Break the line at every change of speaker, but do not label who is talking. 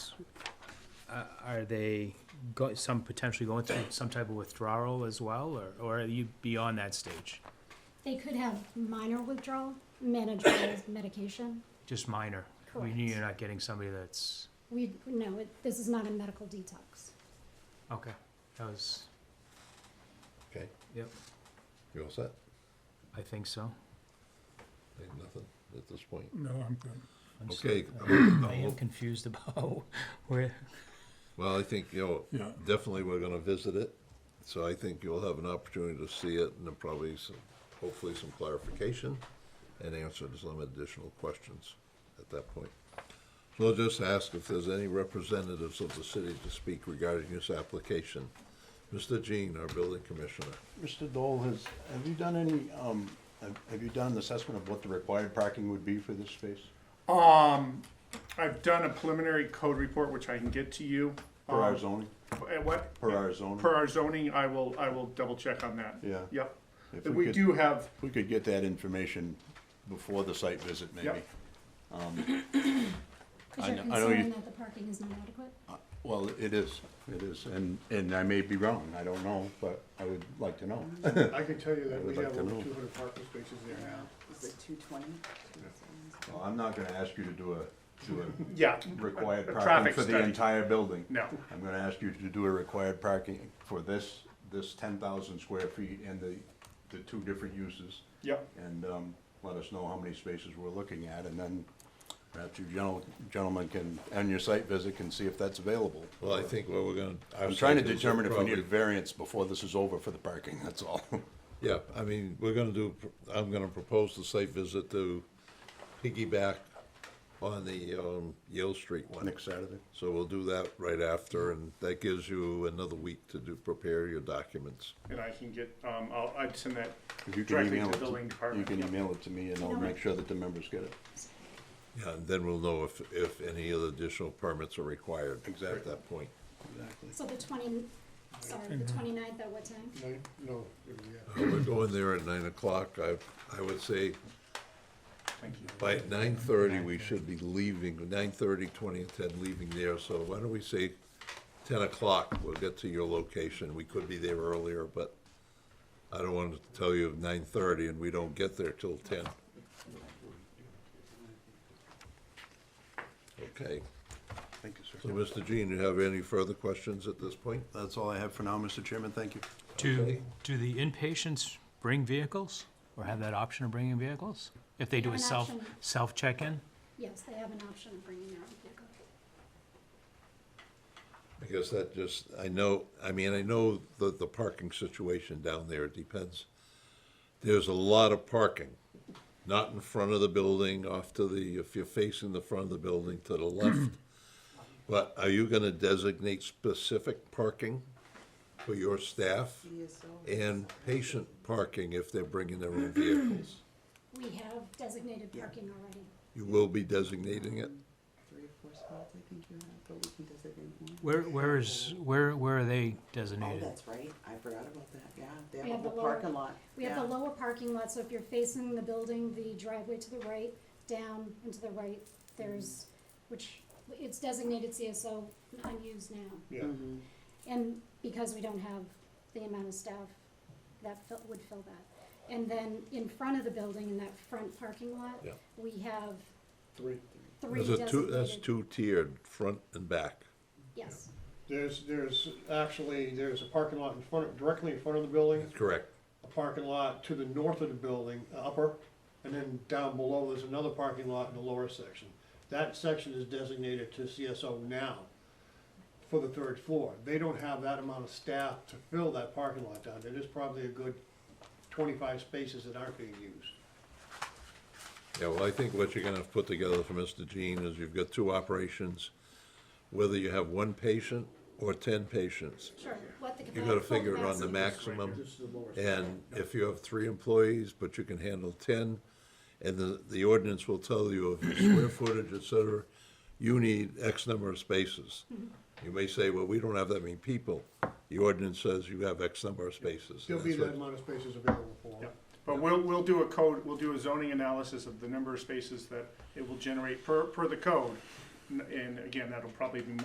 uh, are they go, some potentially going through some type of withdrawal as well, or, or are you beyond that stage?
They could have minor withdrawal, manageable with medication.
Just minor? We
Correct.
knew you're not getting somebody that's,
We, no, it, this is not a medical detox.
okay, that was,
Okay,
yep,
you all set?
I think so.
Ain't nothing at this point.
No, I'm good.
I'm so-
Okay, I'm-
I am confused about where,
well, I think, you know,
Yeah.
definitely we're gonna visit it. So I think you'll have an opportunity to see it and then probably some, hopefully some clarification and answer to some additional questions at that point. So I'll just ask if there's any representatives of the city to speak regarding this application. Mr. Jean, our building commissioner.
Mr. Dole, has, have you done any, um, have have you done an assessment of what the required parking would be for this space?
I've done a preliminary code report, which I can get to you.
Per our
Um,
zoning?
At what?
Per our zoning?
Per our zoning, I will, I will double check on that.
Yeah.
Yep.
If we
We
could-
do have,
If we could get that information before the site visit, maybe.
Yep.
Because
I
you're
kn- I know you-
concerned that the parking is not adequate?
Well, it is, it is, and, and I may be wrong, I don't know, but I would like to know.
I can tell you that
would
we
like
have
to
over
know.
two hundred parking spaces there now.
Is it two twenty?
Well, I'm not gonna ask you to do a, do a
yeah.
required
a
parking
traffic
for the
study.
entire building.
No.
I'm gonna ask you to do a required parking for this, this ten thousand square feet and the, the two different uses.
Yep.
and um, let us know how many spaces we're looking at, and then perhaps you gentle- gentlemen can, on your site visit, can see if that's available.
Well, I think what we're gonna.
I'm trying to
We'll
determine if we need a
probably-
variance before this is over for the parking, that's all.
Yeah, I mean, we're gonna do, I'm gonna propose the site visit to piggyback on the, um, Yale Street one.
Next Saturday.
So we'll do that right after, and that gives you another week to do, prepare your documents.
And I can get, um, I'll, I'd send that
If you can
directly
email
to
it to-
the building
You
department.
can
Yep.
email it to me, and I'll make sure that the members get it.
Yeah, and then we'll know if, if any other additional permits are required at that point.
Exactly.
So the twenty, sorry, the twenty-ninth at what time?
No, no, yeah.
We're going there at nine o'clock, I, I would say
Thank you.
by nine thirty, we should be leaving, nine thirty, twenty and ten, leaving there, so why don't we say ten o'clock, we'll get to your location, we could be there earlier, but I don't want to tell you nine thirty and we don't get there till ten. Okay,
Thank you,
so
sir.
Mr. Jean, you have any further questions at this point?
That's all I have for now, Mr. Chairman, thank you.
Do,
Okay.
do the inpatients bring vehicles, or have that option of bringing vehicles? If they do
Have
a
an
self,
option.
self check-in?
Yes, they have an option of bringing their own vehicle.
Because that just, I know, I mean, I know the, the parking situation down there, it depends. There's a lot of parking, not in front of the building, off to the, if you're facing the front of the building, to the left. But are you gonna designate specific parking for your staff? And patient parking if they're bringing their own vehicles?
We have designated parking already.
You will be designating it?
Three or four spots, I think you have, but we can designate one.
Where, where is, where, where are they
Oh,
designated?
that's right, I forgot about that, yeah, they
We
have
have
a
the
whole
lower-
parking lot.
We have the
yeah.
lower parking lot, so if you're facing the building, the driveway to the right, down and to the right, there's, which, it's designated CSO, unused now.
Yeah,
Mm-hmm.
And because we don't have the amount of staff, that fill, would fill that. And then in front of the building, in that front parking lot,
Yeah.
we have
three.
three
There's a two, that's
designated.
two tiered, front and back.
Yes,
There's, there's actually, there's a parking lot in front, of directly in front of the building,
That's correct.
a parking lot to the north of the building, uh, upper, and then down below, there's another parking lot in the lower section. That section is designated to CSO now for the third floor. They don't have that amount of staff to fill that parking lot down there. There's probably a good twenty-five spaces that aren't being used.
Yeah, well, I think what you're gonna have put together for Mr. Jean is you've got two operations, whether you have one patient or ten patients.
sure, what the.
You gotta
full
figure it on the
capacity-
maximum, and if you have three employees, but you can handle ten, and the, the ordinance will tell you of your square footage, et cetera, you need X number of spaces. You may say, well, we don't have that many people. The ordinance says you have X number of spaces.
There'll be
That's
that
what-
amount of spaces available for them.
Yep. But we'll, we'll do a code, we'll do a zoning analysis of the number of spaces that it will generate per, per the code. N- And again, that'll probably be